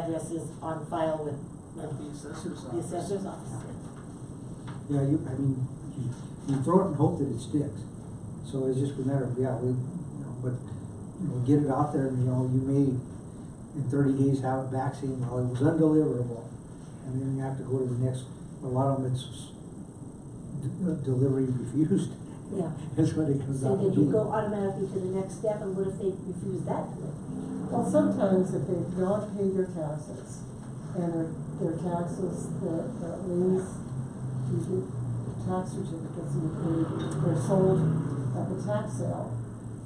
address is on file with At the assessor's the office. assessor's office. Yeah, you, I mean, you, you throw it and hope that it sticks. So it's just a matter of, yeah, we, you know, but, you know, get it out there and, you know, you may in thirty days have it back saying, well, it was undeliverable. And then you have to go to the next, a lot of them it's d- uh, delivery refused. Yeah. That's what it comes So out to be. then you go automatically to the next step, and what if they refuse that? Well, sometimes if they've not paid their taxes, and their, their taxes, the, the liens, you get tax certificates and they, they're sold at the tax sale,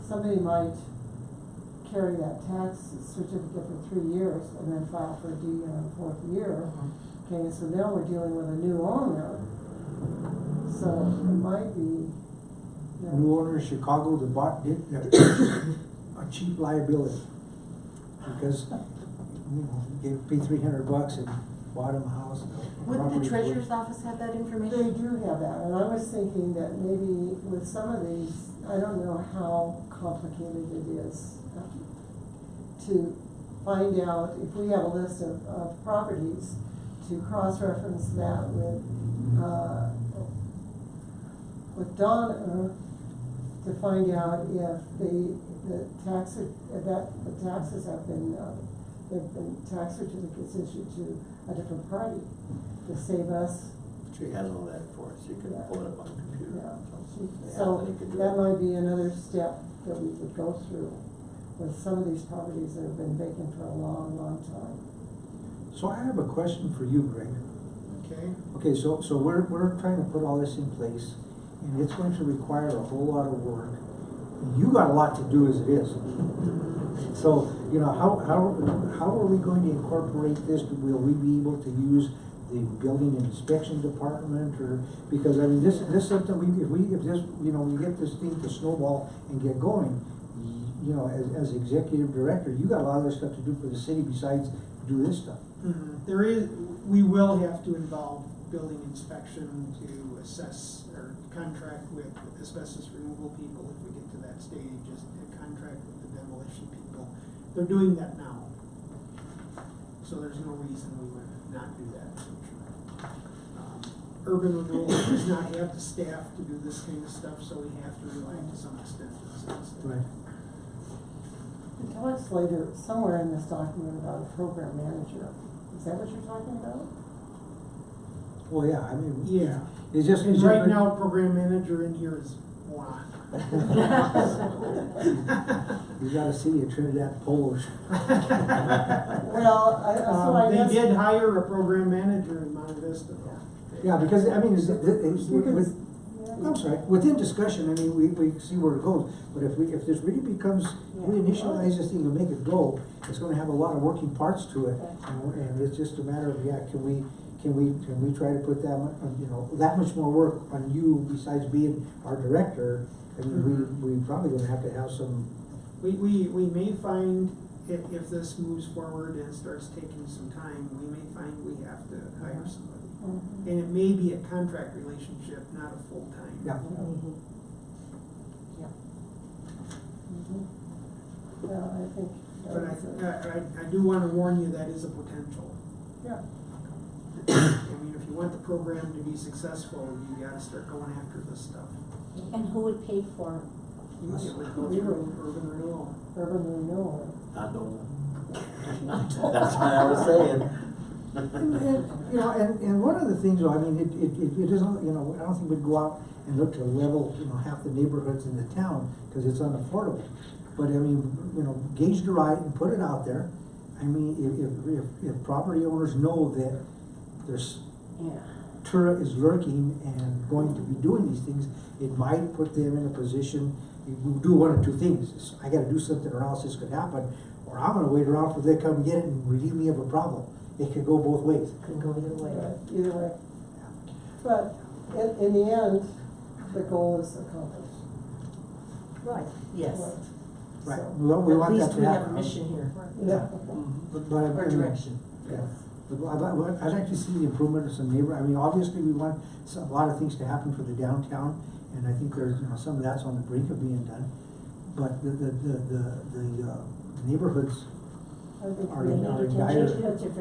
somebody might carry that tax certificate for three years and then file for a deed in the fourth year. Uh-huh. Okay, so now we're dealing with a new owner, so it might be, you know, New owner of Chicago, the bought did, that was a cheap liability. Because, you know, gave, paid three hundred bucks and bought him a house. and a Wouldn't the property for it. treasurer's office have that They information? do have that, and I was thinking that maybe with some of these, I don't know how complicated it is um, to find out, if we have a list of, of properties, to cross-reference that with, uh, with Donna to find out if the, the tax, if that, the taxes have been, uh, have been tax certificates issued to a different party to save us She has all that for us, you can pull it up on the computer. yeah, Yeah, so Anthony can do that it. might be another step that we could go through with some of these properties that have been vacant for a long, long time. So I have a question for you, Greg. Okay, Okay, so, so we're, we're trying to put all this in place, and it's going to require a whole lot of work. You got a lot to do as it is. So, you know, how, how, how are we going to incorporate this? Will we be able to use the building inspection department or, because I mean, this, this is something we, if we, if this, you know, we get this thing to snowball and get going, y- you know, as, as executive director, you got a lot of other stuff to do for the city besides do this stuff. Mhm. there is, we will have to involve building inspection to assess or contract with asbestos removal people if we get to that stage, just a contract with the demolition people. They're doing that now. So there's no reason we would not do that in the future. Um, Urban renewal does not have the staff to do this kind of stuff, so we have to rely to some extent on sales staff. And tell us later, somewhere in this document about a program manager, is that what you're talking about? Well, yeah, I mean. Yeah. It's just. And right now, program manager in here is moi. You got a city of Trinidad Polish. Well, I, so Um, I They guess. did hire a program manager in Monte Vista. Yeah, because, I mean, is, it- it's, We could- with, yeah. I'm sorry, within discussion, I mean, we, we see where it goes. But if we, if this really becomes, we initialize this thing and make it go, it's gonna have a lot of working parts to it. And, and it's just a matter of, yeah, can we, can we, can we try to put that, mu- uh, you know, that much more work on you besides being our director? I mean, we, we probably gonna have to have some, We, we, we may find, if, if this moves forward and starts taking some time, we may find we have to hire somebody. Mhm. And it may be a contract relationship, not a full-time. yeah. Mhm. Well, I think. that But was a- I, I, I do wanna warn you, that is a potential. Yeah. I mean, if you want the program to be successful, you gotta start going after this stuff. And who would pay for It would go through urban renewal. Urban renewal. I don't. That's what I was saying. And- and, You know, and, and one of the things, though, I mean, it, it, it- it isn't, you know, I don't think we'd go out and look to level, you know, half the neighborhoods in the town, because it's unaffordable. But I mean, you know, gauge the right and put it out there. I mean, if, if, if, if property owners know that there's, it? Yeah. Tura is lurking and going to be doing these things, it might put them in a position, you can do one of two things. It's, I gotta do something or else this could happen, or I'm gonna wait around for they come get it and relieve me of a problem. It could go both ways. Could go either way. But Either way. But in, in the end, the goal is accomplished. Right. Yes. Right, So, well, we At want that least to we happen. have a mission here, Yeah. But, but I- or I mean, direction. yeah. But I'd, like- what- I'd like to see the improvement of some neighbor, I mean, obviously, we want s- a lot of things to happen for the downtown, and I think there's, you know, some of that's on the brink of being done. But the, the, the, the, the uh, neighborhoods I think are we- in, are in Change dire. it up to